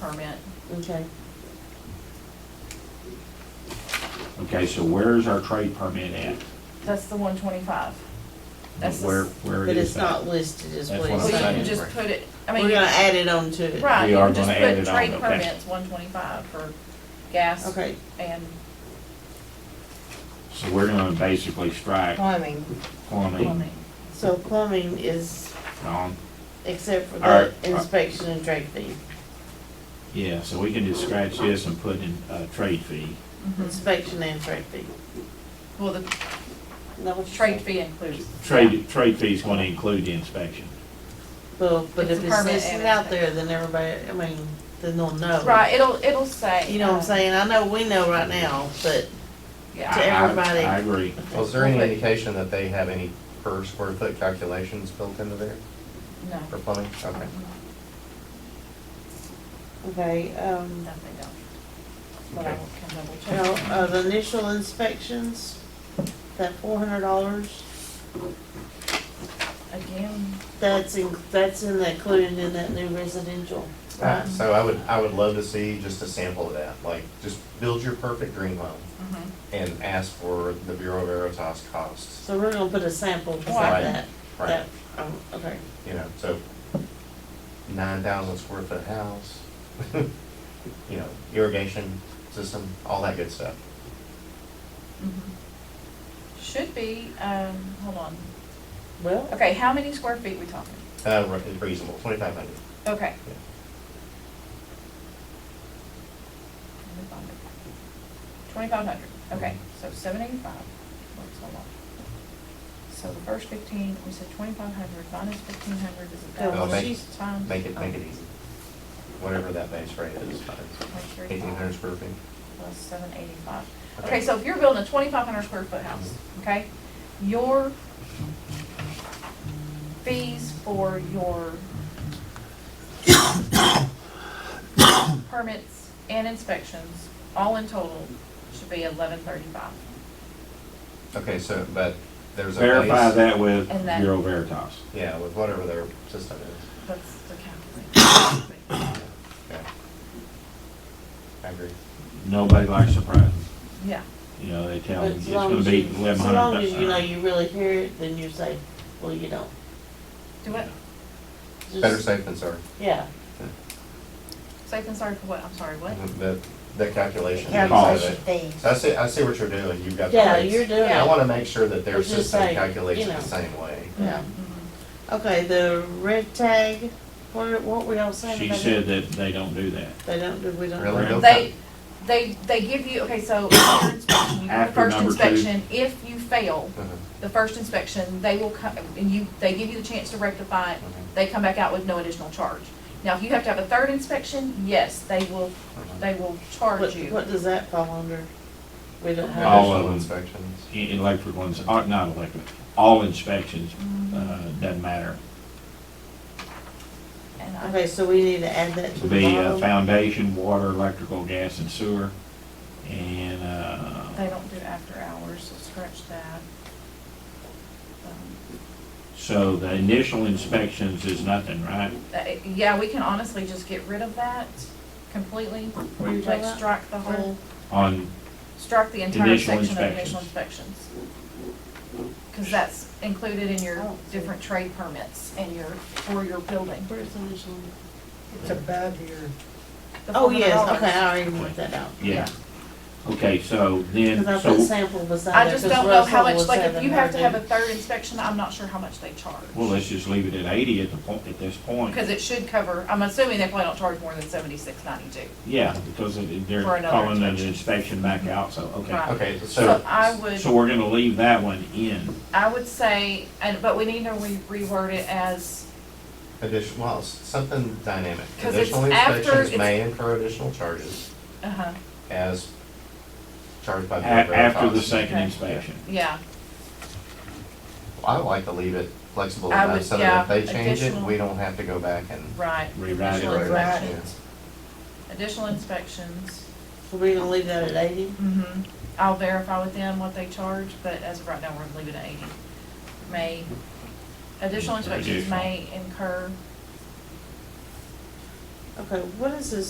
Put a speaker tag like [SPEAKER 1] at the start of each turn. [SPEAKER 1] permit.
[SPEAKER 2] Okay.
[SPEAKER 3] Okay, so where's our trade permit at?
[SPEAKER 1] That's the one twenty-five. That's the
[SPEAKER 3] Where,
[SPEAKER 1] s-
[SPEAKER 3] where
[SPEAKER 2] But
[SPEAKER 3] is
[SPEAKER 2] it's
[SPEAKER 3] that?
[SPEAKER 2] not listed as
[SPEAKER 3] That's
[SPEAKER 2] what
[SPEAKER 3] what
[SPEAKER 2] it's
[SPEAKER 1] Well,
[SPEAKER 3] I'm
[SPEAKER 1] you
[SPEAKER 2] saying.
[SPEAKER 1] can
[SPEAKER 3] saying.
[SPEAKER 1] just put it, I mean.
[SPEAKER 2] We're gonna
[SPEAKER 1] you-
[SPEAKER 2] add it on to it.
[SPEAKER 1] Right,
[SPEAKER 3] We
[SPEAKER 1] you
[SPEAKER 3] are
[SPEAKER 1] can just
[SPEAKER 3] gonna add
[SPEAKER 1] put
[SPEAKER 3] it on,
[SPEAKER 1] trade
[SPEAKER 3] okay.
[SPEAKER 1] permits, one twenty-five for gas
[SPEAKER 2] Okay,
[SPEAKER 1] and
[SPEAKER 3] So we're gonna basically strike
[SPEAKER 2] plumbing.
[SPEAKER 3] plumbing
[SPEAKER 1] plumbing.
[SPEAKER 2] So plumbing is,
[SPEAKER 3] on,
[SPEAKER 2] except for
[SPEAKER 3] All
[SPEAKER 2] the
[SPEAKER 3] right, all right.
[SPEAKER 2] inspection and trade fee.
[SPEAKER 3] yeah, so we can just scratch this and put in a trade fee.
[SPEAKER 1] Mhm.
[SPEAKER 2] Inspection and trade fee.
[SPEAKER 1] Well, the
[SPEAKER 2] Is that what you
[SPEAKER 1] trade
[SPEAKER 2] said?
[SPEAKER 1] fee includes.
[SPEAKER 3] Trade, trade fee's gonna include the inspection.
[SPEAKER 2] Well, but
[SPEAKER 1] It's
[SPEAKER 2] if
[SPEAKER 1] a
[SPEAKER 2] it's
[SPEAKER 1] permit
[SPEAKER 2] listed
[SPEAKER 1] and
[SPEAKER 2] out there, then everybody, I mean, then they'll know.
[SPEAKER 1] Right, it'll, it'll say.
[SPEAKER 2] You know what I'm
[SPEAKER 1] uh,
[SPEAKER 2] saying? I know we know right now, but
[SPEAKER 1] Yeah,
[SPEAKER 2] To
[SPEAKER 3] I- I-
[SPEAKER 2] everybody.
[SPEAKER 3] I agree.
[SPEAKER 4] Well, is there any indication that they have any per square foot calculations built into there
[SPEAKER 1] no,
[SPEAKER 4] for plumbing? Okay.
[SPEAKER 2] Okay, um,
[SPEAKER 1] no, they don't. But I
[SPEAKER 4] Okay.
[SPEAKER 1] will come double check.
[SPEAKER 2] now, uh, the initial inspections, that four hundred dollars,
[SPEAKER 1] Again,
[SPEAKER 2] that's in, that's in, that included in that new residential, right?
[SPEAKER 4] Uh, So I would, I would love to see just a sample of that, like, just build your perfect dream home
[SPEAKER 2] Mm-hmm.
[SPEAKER 1] mhm.
[SPEAKER 4] and ask for the Bureau of Veritas costs,
[SPEAKER 2] So we're gonna put a sample
[SPEAKER 4] Right.
[SPEAKER 2] beside that,
[SPEAKER 4] right?
[SPEAKER 2] that, um, okay,
[SPEAKER 4] You know, so nine thousand square foot house, you know, irrigation system, all that good stuff.
[SPEAKER 1] Mhm. Mm-hmm. Should be, um, hold on.
[SPEAKER 2] well,
[SPEAKER 1] Okay, how many square feet we talking?
[SPEAKER 4] Uh, re- reasonable, twenty-five hundred.
[SPEAKER 1] Okay.
[SPEAKER 4] Yeah.
[SPEAKER 1] Twenty-five hundred, okay,
[SPEAKER 4] Mhm.
[SPEAKER 1] so seven eighty-five, works a lot. So the first fifteen, we said twenty-five hundred minus fifteen hundred is a
[SPEAKER 2] Well,
[SPEAKER 1] thousand.
[SPEAKER 4] make-
[SPEAKER 1] times-
[SPEAKER 4] Make it,
[SPEAKER 1] oh,
[SPEAKER 4] make it easy. Whatever that base rate is,
[SPEAKER 1] times three
[SPEAKER 4] eighteen hundred
[SPEAKER 1] five
[SPEAKER 4] square feet.
[SPEAKER 1] Plus seven eighty-five. Okay, so if you're building a twenty-five hundred square foot house, okay, your fees for your permits and inspections, all in total, should be eleven thirty-five.
[SPEAKER 4] Okay, so, but there's a base.
[SPEAKER 3] Verify that with
[SPEAKER 1] And that-
[SPEAKER 3] Bureau Veritas.
[SPEAKER 4] Yeah, with whatever their system is.
[SPEAKER 1] That's the calculation.
[SPEAKER 4] Yeah. I agree.
[SPEAKER 3] Nobody likes surprises.
[SPEAKER 1] Yeah,
[SPEAKER 3] You know, they
[SPEAKER 2] but
[SPEAKER 3] tell you it's
[SPEAKER 2] as long
[SPEAKER 3] gonna
[SPEAKER 2] as
[SPEAKER 3] be
[SPEAKER 2] you,
[SPEAKER 3] eleven hundred.
[SPEAKER 2] as long as you know you really hear it, then you say, well, you don't.
[SPEAKER 1] do what,
[SPEAKER 2] Just-
[SPEAKER 4] Better safe than sorry.
[SPEAKER 2] Yeah,
[SPEAKER 1] safe and sorry for what, I'm sorry, what?
[SPEAKER 4] Mm-hmm. The, the calculation.
[SPEAKER 3] Calculation
[SPEAKER 4] So I see, I see what you're doing. You've got the
[SPEAKER 2] yeah, you're
[SPEAKER 4] rates.
[SPEAKER 2] doing
[SPEAKER 4] I
[SPEAKER 2] it,
[SPEAKER 4] wanna make sure that their
[SPEAKER 2] It's just
[SPEAKER 4] system
[SPEAKER 2] like,
[SPEAKER 4] calculates
[SPEAKER 2] you
[SPEAKER 4] it
[SPEAKER 2] know.
[SPEAKER 4] the same way.
[SPEAKER 2] yeah.
[SPEAKER 1] Mhm.
[SPEAKER 2] Okay, the red tag, what, what were y'all saying
[SPEAKER 3] She
[SPEAKER 2] about it?
[SPEAKER 3] said that they don't do that.
[SPEAKER 2] They don't, do. we don't.
[SPEAKER 4] Really?
[SPEAKER 3] Right.
[SPEAKER 4] They'll
[SPEAKER 1] They,
[SPEAKER 4] cut-
[SPEAKER 1] they, they give you, okay, so after inspection, you do the
[SPEAKER 3] After
[SPEAKER 1] first
[SPEAKER 3] number two.
[SPEAKER 1] inspection, if you fail,
[SPEAKER 4] Uh-huh,
[SPEAKER 1] the first inspection, they will come, and you, they give you the chance to rectify it,
[SPEAKER 4] uh-huh,
[SPEAKER 1] they come back out with no additional charge. Now, if you have to have a third inspection, yes, they will,
[SPEAKER 4] uh-huh.
[SPEAKER 1] they will
[SPEAKER 2] What,
[SPEAKER 1] charge you.
[SPEAKER 2] what does that fall under? We don't have,
[SPEAKER 3] All of
[SPEAKER 4] Additional
[SPEAKER 3] them.
[SPEAKER 4] Inspections.
[SPEAKER 3] E- Electric ones, uh, not electric, all inspections, uh, doesn't matter.
[SPEAKER 1] And I,
[SPEAKER 2] okay, so we need to add that to the
[SPEAKER 3] The uh,
[SPEAKER 2] bottom?
[SPEAKER 3] foundation, water, electrical, gas, and sewer, and, uh,
[SPEAKER 1] they don't do after hours, so scratch that. Um,
[SPEAKER 3] so the initial inspections is nothing, right?
[SPEAKER 1] that- Yeah, we can honestly just get rid of that completely,
[SPEAKER 2] What are you talking
[SPEAKER 1] like
[SPEAKER 2] about?
[SPEAKER 1] strike the whole,
[SPEAKER 3] On,
[SPEAKER 1] strike the entire
[SPEAKER 3] Initial
[SPEAKER 1] section of initial
[SPEAKER 3] inspections.
[SPEAKER 1] inspections. Cause that's included in your
[SPEAKER 2] Oh.
[SPEAKER 1] different trade permits and your, for your building.
[SPEAKER 2] Where's the initial?
[SPEAKER 5] It's above your,
[SPEAKER 1] The
[SPEAKER 2] Oh, yes,
[SPEAKER 1] $400.
[SPEAKER 2] okay, I already worked that out.
[SPEAKER 3] yeah. Okay, so then,
[SPEAKER 2] Cause I put
[SPEAKER 3] so,
[SPEAKER 2] sample beside
[SPEAKER 1] I
[SPEAKER 2] it,
[SPEAKER 1] just
[SPEAKER 2] 'cause
[SPEAKER 1] don't know how
[SPEAKER 2] Russell
[SPEAKER 1] much,
[SPEAKER 2] was
[SPEAKER 1] like, if
[SPEAKER 2] having
[SPEAKER 1] you
[SPEAKER 2] her
[SPEAKER 1] have to have
[SPEAKER 2] do-
[SPEAKER 1] a third inspection, I'm not sure how much they charge.
[SPEAKER 3] well, let's just leave it at eighty at the point, at this point.
[SPEAKER 1] Because it should cover, I'm assuming they probably don't charge more than seventy-six ninety-two.
[SPEAKER 3] Yeah, because it- they're
[SPEAKER 1] For another
[SPEAKER 3] calling an
[SPEAKER 1] inspection.
[SPEAKER 3] inspection back out, so, okay.
[SPEAKER 1] Right.
[SPEAKER 4] Okay,
[SPEAKER 1] So
[SPEAKER 4] so,
[SPEAKER 1] I would,
[SPEAKER 3] Uh, So we're gonna leave that one in.
[SPEAKER 1] I would say, and, but we need to re- reword it as,
[SPEAKER 4] addition, well, s- something dynamic.
[SPEAKER 1] 'Cause it's
[SPEAKER 4] Additional
[SPEAKER 1] after-
[SPEAKER 4] inspections
[SPEAKER 1] it's-
[SPEAKER 4] may incur additional charges
[SPEAKER 1] uh-huh,
[SPEAKER 4] as charged by
[SPEAKER 3] A-
[SPEAKER 4] the.
[SPEAKER 3] After the
[SPEAKER 4] Veritas.
[SPEAKER 3] second
[SPEAKER 1] Okay.
[SPEAKER 3] inspection.
[SPEAKER 1] yeah,
[SPEAKER 4] I would like to leave it flexible
[SPEAKER 1] I
[SPEAKER 4] enough
[SPEAKER 1] would-
[SPEAKER 4] so that if
[SPEAKER 1] yeah,
[SPEAKER 4] they change it,
[SPEAKER 1] additional-
[SPEAKER 4] we don't have to go back and.
[SPEAKER 1] right.
[SPEAKER 3] Rewrite
[SPEAKER 1] Additional
[SPEAKER 4] Right.
[SPEAKER 3] it.
[SPEAKER 1] inspections. Additional inspections,
[SPEAKER 2] So we gonna leave that at eighty?
[SPEAKER 1] mm-hmm, I'll verify with them what they charge, but as of right now, we're gonna leave it at eighty. May, additional inspections
[SPEAKER 3] Additional.
[SPEAKER 1] may incur
[SPEAKER 2] Okay, what is this